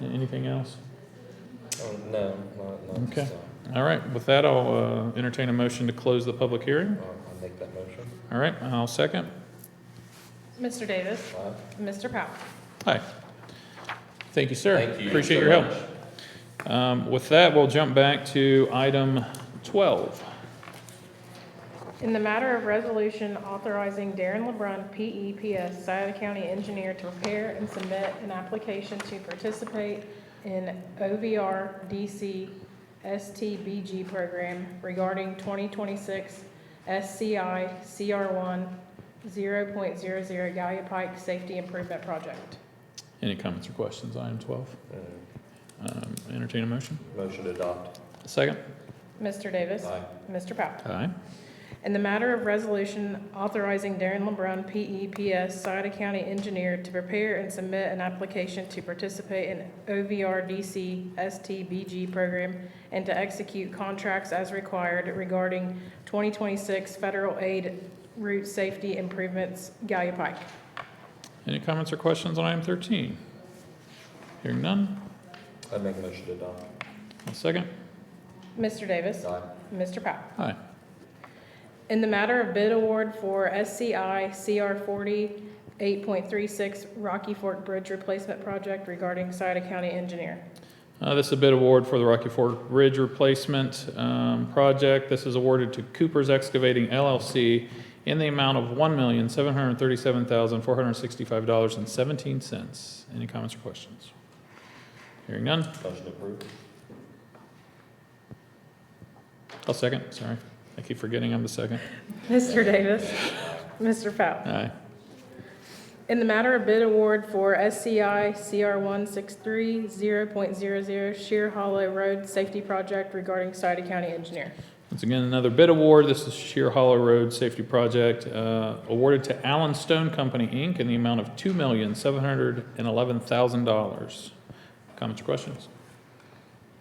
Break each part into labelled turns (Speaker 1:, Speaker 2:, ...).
Speaker 1: Anything else?
Speaker 2: Oh, no, not, not this
Speaker 1: Okay.
Speaker 2: time.
Speaker 1: All right, with that, I'll uh, entertain a motion to close the public hearing.
Speaker 2: I'll, I'll make that motion.
Speaker 1: All right, I'll second.
Speaker 3: Mr. Davis,
Speaker 2: Aye.
Speaker 3: Mr. Powell.
Speaker 1: Hi. Thank you, sir.
Speaker 2: Thank you
Speaker 1: Appreciate
Speaker 2: so
Speaker 1: your
Speaker 2: much.
Speaker 1: help. Um, With that, we'll jump back to item 12.
Speaker 3: In the matter of resolution authorizing Darren LeBrun, E PEPS, Souda County Engineer, to prepare and submit an application to participate in OVR DC STBG program regarding 2026 SCI CR1 0.00 Gallia Pike Safety Improvement Project.
Speaker 1: Any comments or questions on item 12?
Speaker 2: Mm,
Speaker 1: Um, Entertain a motion.
Speaker 2: Motion to adopt.
Speaker 1: Second.
Speaker 3: Mr. Davis.
Speaker 2: Aye.
Speaker 3: Mr. Powell.
Speaker 1: Aye.
Speaker 3: In the matter of resolution authorizing Darren LeBrun, E PEPS, Sauter County Engineer, to prepare and submit an application to participate in OVRDC STBG program and to execute contracts as required regarding 2026 federal aid route safety improvements, Gallia Pike.
Speaker 1: Any comments or questions on item 13? Hearing none.
Speaker 2: I make a motion to adopt.
Speaker 1: I'll second.
Speaker 3: Mr. Davis?
Speaker 2: Aye.
Speaker 3: Mr. Powell?
Speaker 1: Aye.
Speaker 3: In the matter of bid award for SCI CR forty eight point three six Rocky Fork Bridge Replacement Project regarding Sauter County Engineer.
Speaker 1: Uh, This is a bid award for the Rocky Fork Bridge Replacement um, Project. This is awarded to Cooper's Excavating LLC in the amount of $1,737,465.17. Any comments or questions? Hearing none.
Speaker 2: Motion approved.
Speaker 1: I'll second, sorry. I keep forgetting I'm the second.
Speaker 3: Mr. Davis. Mr. Powell.
Speaker 1: Aye.
Speaker 3: In the matter of bid award for SCI CR one six three zero point zero zero Sheer Hollow Road Safety Project regarding Sauter County Engineer.
Speaker 1: Once again, another bid award. This is Sheer Hollow Road Safety Project, uh, awarded to Allen Stone Company, Inc., in the amount of $2,711,000. Comments or questions?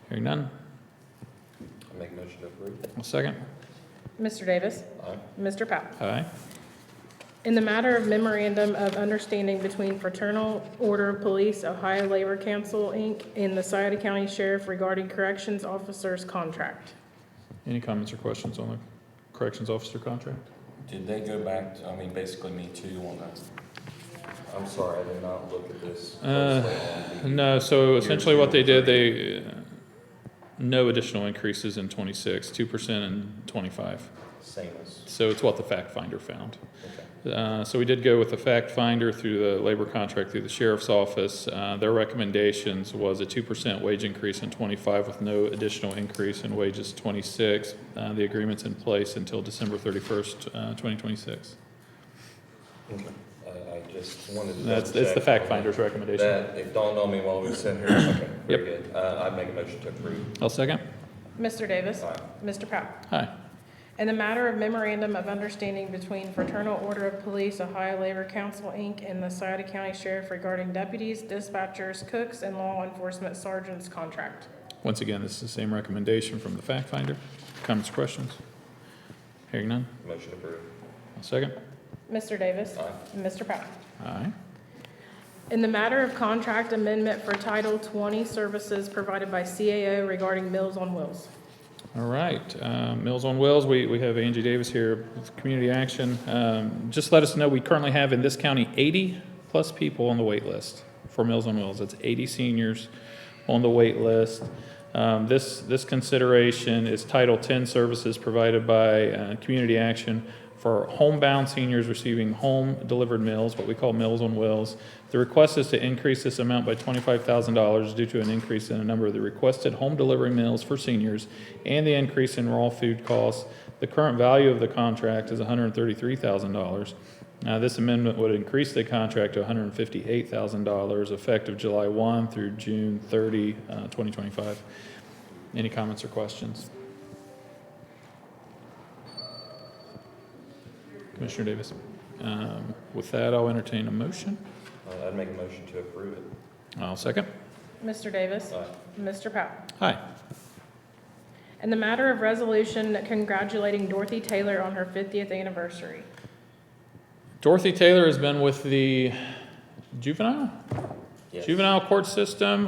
Speaker 1: Hearing none.
Speaker 2: I make a motion to approve.
Speaker 1: I'll second.
Speaker 3: Mr. Davis.
Speaker 2: Aye.
Speaker 3: Mr. Powell.
Speaker 1: Aye.
Speaker 3: In the matter of memorandum of understanding between Fraternal Order of Police, Ohio Labor Council, Inc., and the Sauter County Sheriff regarding corrections officers' contract.
Speaker 1: Any comments or questions on the corrections officer contract?
Speaker 4: Did they go back, to- I mean, basically me too on that?
Speaker 2: I'm sorry, I did not look at this
Speaker 1: Uh,
Speaker 2: closely on the.
Speaker 1: No, so essentially what they did, they, uh, no additional increases in 26, 2% and 25.
Speaker 2: Same as,
Speaker 1: So it's what the fact finder found.
Speaker 2: okay.
Speaker 1: Uh, So we did go with the fact finder through the labor contract through the sheriff's office. Uh, Their recommendations was a 2% wage increase in '25 with no additional increase in wages '26. The agreement's in place until December 31st, uh, 2026.
Speaker 2: Okay. I, I just wanted to.
Speaker 1: That's,
Speaker 2: double
Speaker 1: that's the
Speaker 2: check
Speaker 1: fact
Speaker 2: on
Speaker 1: finder's recommendation.
Speaker 2: That, it dawned on me while we were sitting here. Okay, very good. Uh, I make a motion to approve.
Speaker 1: I'll second.
Speaker 3: Mr. Davis?
Speaker 2: Aye.
Speaker 3: Mr. Powell?
Speaker 1: Aye.
Speaker 3: In the matter of memorandum of understanding between Fraternal Order of Police, Ohio Labor Council, Inc., and the Sauter County Sheriff regarding deputies, dispatchers, cooks, and law enforcement sergeants' contract.
Speaker 1: Once again, this is the same recommendation from the fact finder. Comments, or questions? Hearing none.
Speaker 2: Motion approved.
Speaker 1: I'll second.
Speaker 3: Mr. Davis?
Speaker 2: Aye.
Speaker 3: Mr. Powell?
Speaker 1: Aye.
Speaker 3: In the matter of contract amendment for Title 20 services provided by CAO regarding Meals on Wheels.
Speaker 1: All right, uh, Mills on Wells, we, we have Angie Davis here with Community Action. Um, Just let us know, we currently have in this county 80-plus people on the wait list for Mills on Wells. That's 80 seniors on the wait list. Um, This, this consideration is Title 10 services provided by uh, Community Action for homebound seniors receiving home-delivered meals, what we call Meals on Wheels. The request is to increase this amount by $25,000 due to an increase in the number of the requested home delivery meals for seniors and the increase in raw food costs. The current value of the contract is $133,000. Now, this amendment would increase the contract to $158,000 effective July 1 through June 30, uh, 2025. Any comments or questions? Commissioner Davis, um, with that, I'll entertain a motion.
Speaker 2: Uh, I'd make a motion to approve it.
Speaker 1: I'll second.
Speaker 3: Mr. Davis?
Speaker 2: Aye.
Speaker 3: Mr. Powell?
Speaker 1: Aye.
Speaker 3: In the matter of resolution congratulating Dorothy Taylor on her 50th anniversary.
Speaker 1: Dorothy Taylor has been with the juvenile,
Speaker 2: Yes.
Speaker 1: juvenile court system